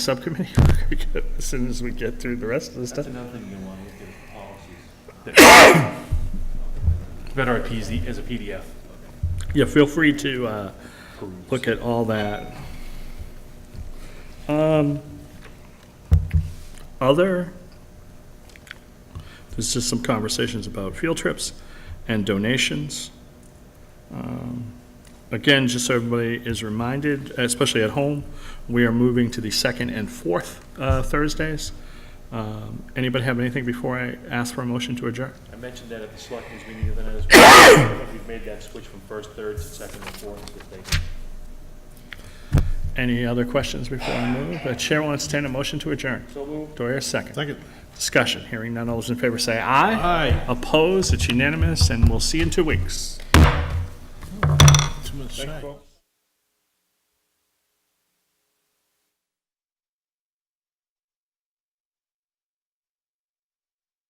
subcommittee work as soon as we get through the rest of the stuff. That's another thing you want to look at, policies. It's Better at PZ, as a PDF. Yeah, feel free to uh, look at all that. Um, Other, there's just some conversations about field trips and donations. Um, Again, just so everybody is reminded, especially at home, we are moving to the second and fourth uh, Thursdays. Um, Anybody have anything before I ask for a motion to adjourn? I mentioned that at the selectmen's meeting the other night as well. I think We've made that switch from first, third to second and fourth if they. Any other questions before I move? The chair will entertain a motion to adjourn. So moved. Do I hear a second? Second. Discussion, hearing none, all those in favor say aye. Aye. Opposed, it's unanimous, and we'll see you in two weeks. Too much Thank you, shite. folks.